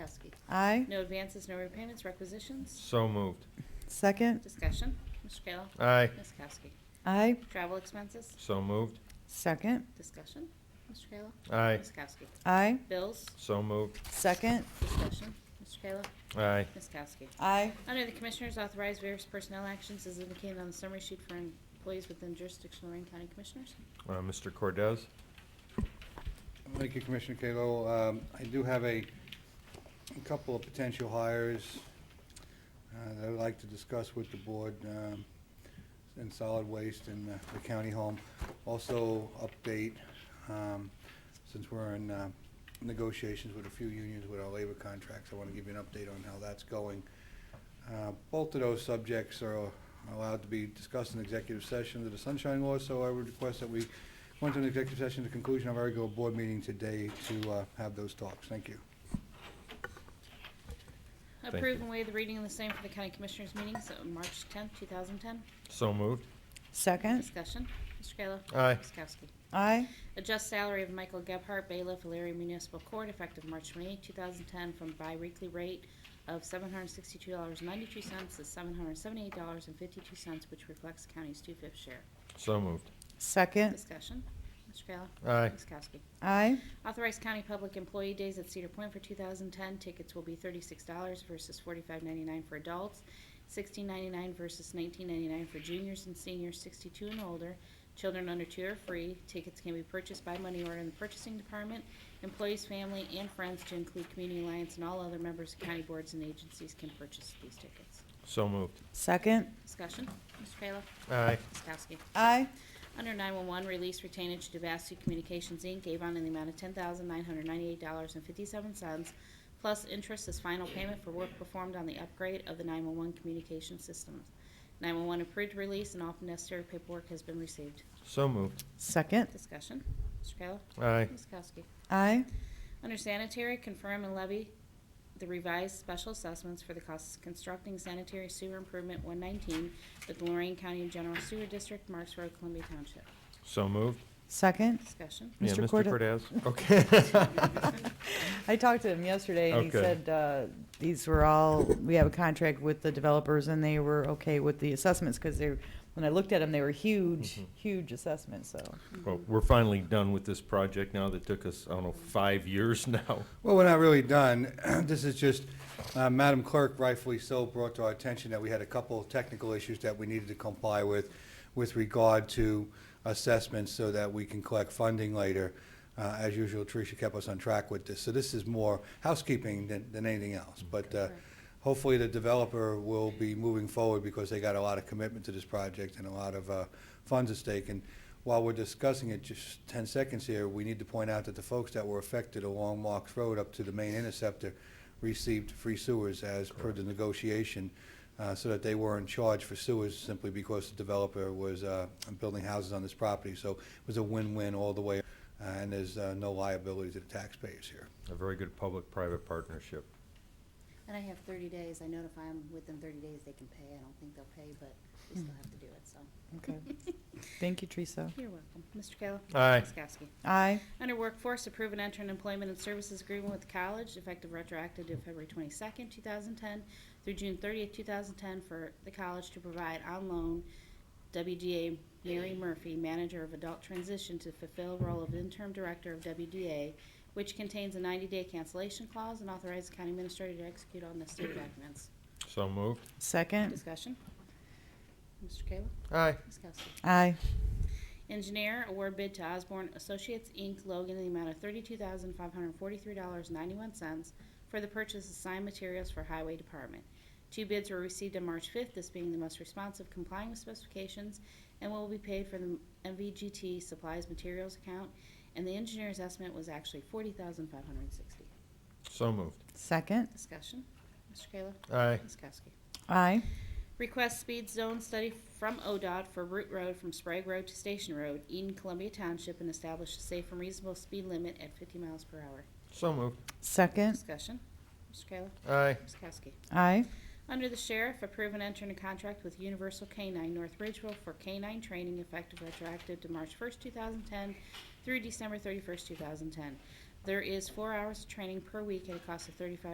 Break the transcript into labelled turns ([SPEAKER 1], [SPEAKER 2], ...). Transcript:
[SPEAKER 1] Aye.
[SPEAKER 2] No advances, no repayments, requisitions.
[SPEAKER 3] So moved.
[SPEAKER 1] Second.
[SPEAKER 2] Discussion. Mr. Kayla.
[SPEAKER 3] Aye.
[SPEAKER 2] Ms. Kowski.
[SPEAKER 1] Aye.
[SPEAKER 2] Travel expenses.
[SPEAKER 3] So moved.
[SPEAKER 1] Second.
[SPEAKER 2] Discussion. Mr. Kayla.
[SPEAKER 3] Aye.
[SPEAKER 2] Ms. Kowski.
[SPEAKER 1] Aye.
[SPEAKER 2] Bills.
[SPEAKER 3] So moved.
[SPEAKER 1] Second.
[SPEAKER 2] Discussion. Mr. Kayla.
[SPEAKER 3] Aye.
[SPEAKER 2] Ms. Kowski.
[SPEAKER 1] Aye.
[SPEAKER 2] Under the Commissioners, authorize various personnel actions as indicated on the summary sheet for employees within jurisdiction of Lorraine County Commissioners.
[SPEAKER 3] Uh, Mr. Cordez?
[SPEAKER 4] Thank you, Commissioner Kalo. Um, I do have a, a couple of potential hires uh, that I'd like to discuss with the board um, in solid waste and uh, the county home. Also, update, um, since we're in uh, negotiations with a few unions with our labor contracts, I want to give you an update on how that's going. Uh, Both of those subjects are allowed to be discussed in executive session under the Sunshine Law, so I would request that we went to an executive session at the conclusion of our regular board meeting today to uh, have those talks. Thank you.
[SPEAKER 3] you.
[SPEAKER 2] Approve and waive the reading of the same for the County Commissioners meetings on March 10th, 2010.
[SPEAKER 3] So moved.
[SPEAKER 1] Second.
[SPEAKER 2] Discussion. Mr. Kayla.
[SPEAKER 3] Aye.
[SPEAKER 2] Ms. Kowski.
[SPEAKER 1] Aye.
[SPEAKER 2] Adjust salary of Michael Gebhardt, bailiff, Alariah Municipal Court, effective March 28, 2010, from bi-weekly rate of $762.92 to $778.52, which reflects county's two-fifth share.
[SPEAKER 3] So moved.
[SPEAKER 1] Second.
[SPEAKER 2] Discussion. Mr. Kayla.
[SPEAKER 3] Aye.
[SPEAKER 2] Ms. Kowski.
[SPEAKER 1] Aye.
[SPEAKER 2] Authorize county public employee days at Cedar Point for 2010. Tickets will be $36 versus $45.99 for adults, $16.99 versus $19.99 for juniors and seniors 62 and older. Children under two are free. Tickets can be purchased by money order in the purchasing department. Employees, family, and friends, to include Community Alliance and all other members of county boards and agencies, can purchase these tickets.
[SPEAKER 3] So moved.
[SPEAKER 1] Second.
[SPEAKER 2] Discussion, Mr. Kayla.
[SPEAKER 3] Aye.
[SPEAKER 2] Ms. Kowski.
[SPEAKER 1] Aye.
[SPEAKER 2] Under 911, release retainage to Devastu Communications, Inc., Avon, in the amount of $10,998.57, plus interest as final payment for work performed on the upgrade of the 911 communication systems. 911 approved release and all necessary paperwork has been received.
[SPEAKER 3] So moved.
[SPEAKER 1] Second.
[SPEAKER 2] Discussion. Mr. Kayla?
[SPEAKER 3] Aye.
[SPEAKER 2] Ms. Kowski?
[SPEAKER 1] Aye.
[SPEAKER 2] Under sanitary, confirm and levy the revised special assessments for the costs of constructing sanitary sewer improvement 119 with the Lorraine County General Sewer District, Marks Road, Columbia Township.
[SPEAKER 3] So moved.
[SPEAKER 1] Second.
[SPEAKER 2] Discussion.
[SPEAKER 3] Yeah,
[SPEAKER 1] Mr.
[SPEAKER 3] Mr.
[SPEAKER 1] Cordes.
[SPEAKER 3] Cordez? Okay.
[SPEAKER 1] I talked to him yesterday and he
[SPEAKER 3] Okay.
[SPEAKER 1] said, uh, these were all, we have a contract with the developers and they were okay with the assessments because they, when I looked at them, they were huge,
[SPEAKER 3] Mhm.
[SPEAKER 1] huge assessments, so.
[SPEAKER 3] Well, we're finally done with this project now that took us, I don't know, five years now.
[SPEAKER 4] Well, we're not really done. This is just, uh, Madam Clerk rightfully so brought to our attention that we had a couple of technical issues that we needed to comply with, with regard to assessments so that we can collect funding later. Uh, As usual, Tricia kept us on track with this. So this is more housekeeping than, than anything else. But uh, hopefully the developer will be moving forward because they got a lot of commitment to this project and a lot of uh, funds at stake. And while we're discussing it, just 10 seconds here, we need to point out that the folks that were affected along Marks Road up to the main interceptor received free sewers as per the negotiation, uh, so that they weren't charged for sewers simply because the developer was uh, building houses on this property. So it was a win-win all the way, uh, and there's uh, no liability to the taxpayers here.
[SPEAKER 3] A very good public-private partnership.
[SPEAKER 2] And I have thirty days, I notify them within thirty days they can pay, I don't think they'll pay, but we still have to do it, so.
[SPEAKER 1] Okay. Thank you, Teresa.
[SPEAKER 2] You're welcome. Mr. Kayla?
[SPEAKER 3] Aye.
[SPEAKER 2] Ms. Kowski?
[SPEAKER 1] Aye.
[SPEAKER 2] Under Workforce, approve and enter an employment and services agreement with college effective retroactive to February twenty-second, two thousand ten through June thirtieth, two thousand ten for the college to provide on loan WDA Mary Murphy, manager of adult transition, to fulfill role of interim director of WDA, which contains a ninety-day cancellation clause and authorize the county administrator to execute all necessary documents.
[SPEAKER 3] So moved.
[SPEAKER 1] Second.
[SPEAKER 2] Discussion. Mr. Kayla?
[SPEAKER 3] Aye.
[SPEAKER 2] Ms. Kowski?
[SPEAKER 1] Aye.
[SPEAKER 2] Engineer, award bid to Osborne Associates, Inc., Logan, in the amount of thirty-two thousand five hundred forty-three dollars ninety-one cents for the purchase of signed materials for Highway Department. Two bids were received on March fifth, this being the most responsive complying with specifications, and will be paid from the MVGT Supplies Materials account, and the engineer's estimate was actually forty thousand five hundred sixty.
[SPEAKER 3] So moved.
[SPEAKER 1] Second.
[SPEAKER 2] Discussion, Mr. Kayla?
[SPEAKER 3] Aye.
[SPEAKER 2] Ms. Kowski?
[SPEAKER 1] Aye.
[SPEAKER 2] Request speed zone study from ODOT for Route Road from Sprague Road to Station Road, Eden, Columbia Township, and establish a safe and reasonable speed limit at 50 miles per hour.
[SPEAKER 3] So moved.
[SPEAKER 1] Second.
[SPEAKER 2] Discussion. Mr. Kayla.
[SPEAKER 3] Aye.
[SPEAKER 2] Ms. Kowski.
[SPEAKER 1] Aye.
[SPEAKER 2] Under the Sheriff, approve and enter into contract with Universal Canine North Ridgeville for canine training effective retroactive to March 1st, 2010 through December 31st, 2010. There is four hours of training per week at a cost of 35.